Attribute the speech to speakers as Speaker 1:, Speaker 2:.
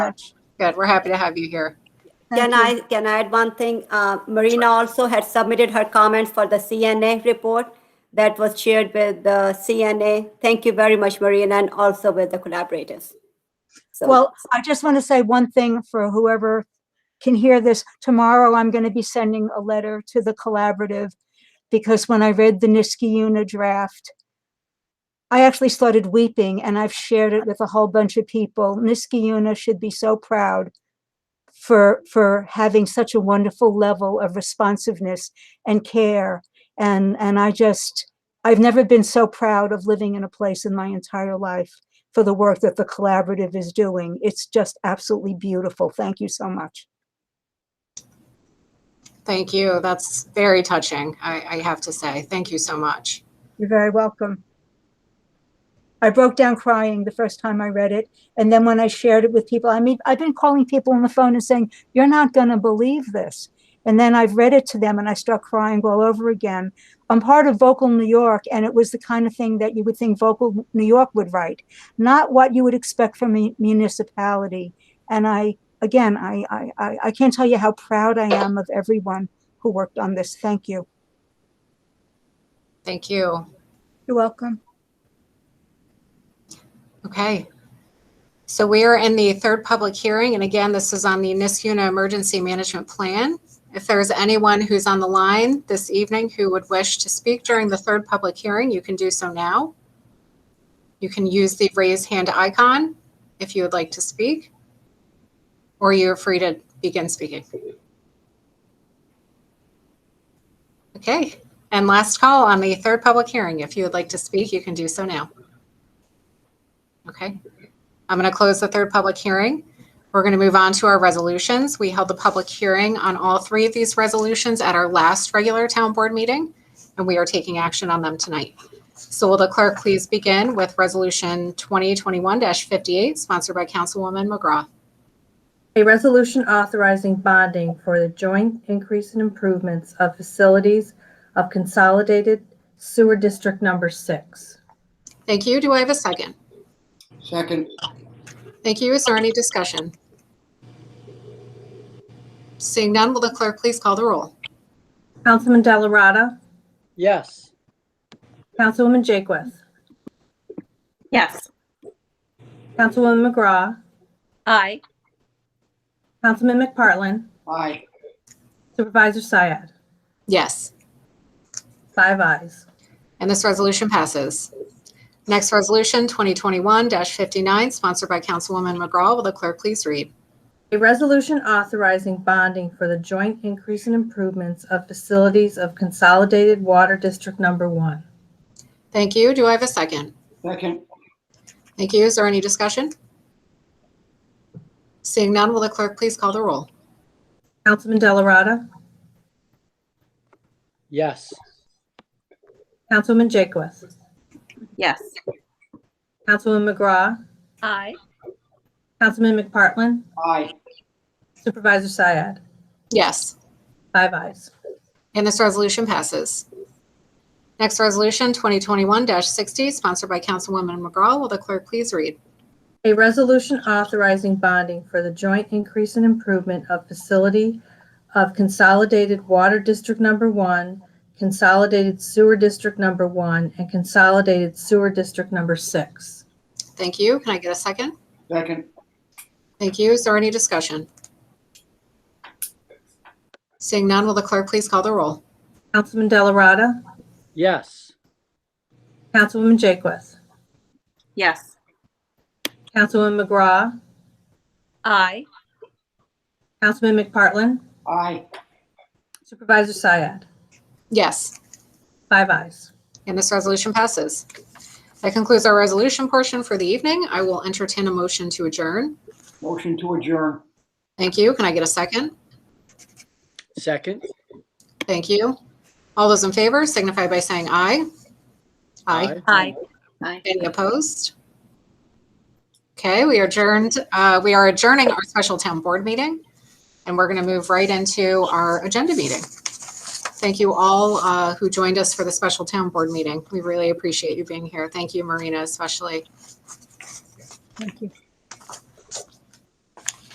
Speaker 1: much. Good, we're happy to have you here.
Speaker 2: Can I, can I add one thing? Uh, Marina also had submitted her comments for the CNA report that was shared with the CNA. Thank you very much, Marina, and also with the collaborators. So-
Speaker 3: Well, I just want to say one thing for whoever can hear this. Tomorrow, I'm going to be sending a letter to the collaborative because when I read the Niski Una draft, I actually started weeping and I've shared it with a whole bunch of people. Niski Una should be so proud for, for having such a wonderful level of responsiveness and care. And, and I just, I've never been so proud of living in a place in my entire life for the work that the collaborative is doing. It's just absolutely beautiful. Thank you so much.
Speaker 1: Thank you. That's very touching, I, I have to say. Thank you so much.
Speaker 3: You're very welcome. I broke down crying the first time I read it. And then when I shared it with people, I mean, I've been calling people on the phone and saying, You're not going to believe this. And then I've read it to them and I start crying all over again. I'm part of Vocal New York, and it was the kind of thing that you would think Vocal New York would write, not what you would expect from a municipality. And I, again, I, I, I- I can't tell you how proud I am of everyone who worked on this. Thank you.
Speaker 1: Thank you.
Speaker 3: You're welcome.
Speaker 1: Okay. So we are in the third public hearing, and again, this is on the Niskuna Emergency Management Plan. If there is anyone who's on the line this evening who would wish to speak during the third public hearing, you can do so now. You can use the raise hand icon if you would like to speak, or you're free to begin speaking. Okay, and last call on the third public hearing. If you would like to speak, you can do so now. Okay. I'm going to close the third public hearing. We're going to move on to our resolutions. We held the public hearing on all three of these resolutions at our last regular town board meeting, and we are taking action on them tonight. So will the clerk please begin with Resolution 2021-58, sponsored by Councilwoman McGraw?
Speaker 4: A resolution authorizing bonding for the joint increase in improvements of facilities of Consolidated Sewer District Number Six.
Speaker 1: Thank you. Do I have a second?
Speaker 5: Second,
Speaker 1: Thank you. Is there any discussion? Seeing none, will the clerk please call the roll?
Speaker 4: Councilman Delarada.
Speaker 6: Yes.
Speaker 4: Councilwoman Jakewith.
Speaker 7: Yes.
Speaker 4: Councilwoman McGraw.
Speaker 7: Aye.
Speaker 4: Councilman McPartlin.
Speaker 5: aye.
Speaker 4: Supervisor Syed.
Speaker 1: Yes.
Speaker 4: Five ayes.
Speaker 1: And this resolution passes. Next resolution, 2021-59, sponsored by Councilwoman McGraw. Will the clerk please read?
Speaker 4: A resolution authorizing bonding for the joint increase in improvements of facilities of Consolidated Water District Number One.
Speaker 1: Thank you. Do I have a second?
Speaker 5: Second,
Speaker 1: Thank you. Is there any discussion? Seeing none, will the clerk please call the roll?
Speaker 4: Councilman Delarada.
Speaker 6: Yes.
Speaker 4: Councilwoman Jakewith.
Speaker 7: Yes.
Speaker 4: Councilwoman McGraw.
Speaker 7: Aye.
Speaker 4: Councilman McPartlin.
Speaker 5: aye.
Speaker 4: Supervisor Syed.
Speaker 1: Yes.
Speaker 4: Five ayes.
Speaker 1: And this resolution passes. Next resolution, 2021-60, sponsored by Councilwoman McGraw. Will the clerk please read?
Speaker 4: A resolution authorizing bonding for the joint increase and improvement of facility of Consolidated Water District Number One, Consolidated Sewer District Number One, and Consolidated Sewer District Number Six.
Speaker 1: Thank you. Can I get a second?
Speaker 5: Second,
Speaker 1: Thank you. Is there any discussion? Seeing none, will the clerk please call the roll?
Speaker 4: Councilman Delarada.
Speaker 6: Yes.
Speaker 4: Councilwoman Jakewith.
Speaker 7: Yes.
Speaker 4: Councilwoman McGraw.
Speaker 7: Aye.
Speaker 4: Councilman McPartlin.
Speaker 5: aye.
Speaker 4: Supervisor Syed.
Speaker 1: Yes,
Speaker 4: Five ayes.
Speaker 1: and this resolution passes. That concludes our resolution portion for the evening. I will entertain a motion to adjourn.
Speaker 5: Motion to adjourn.
Speaker 1: Thank you. Can I get a second?
Speaker 6: Second?
Speaker 1: Thank you. All those in favor signify by saying aye. Aye.
Speaker 7: Aye. Aye.
Speaker 1: Any opposed? Okay, we are adjourned, uh, we are adjourning our special town board meeting, and we're going to move right into our agenda meeting. Thank you all uh, who joined us for the special town board meeting. We really appreciate you being here. Thank you, Marina, especially.
Speaker 3: Thank you.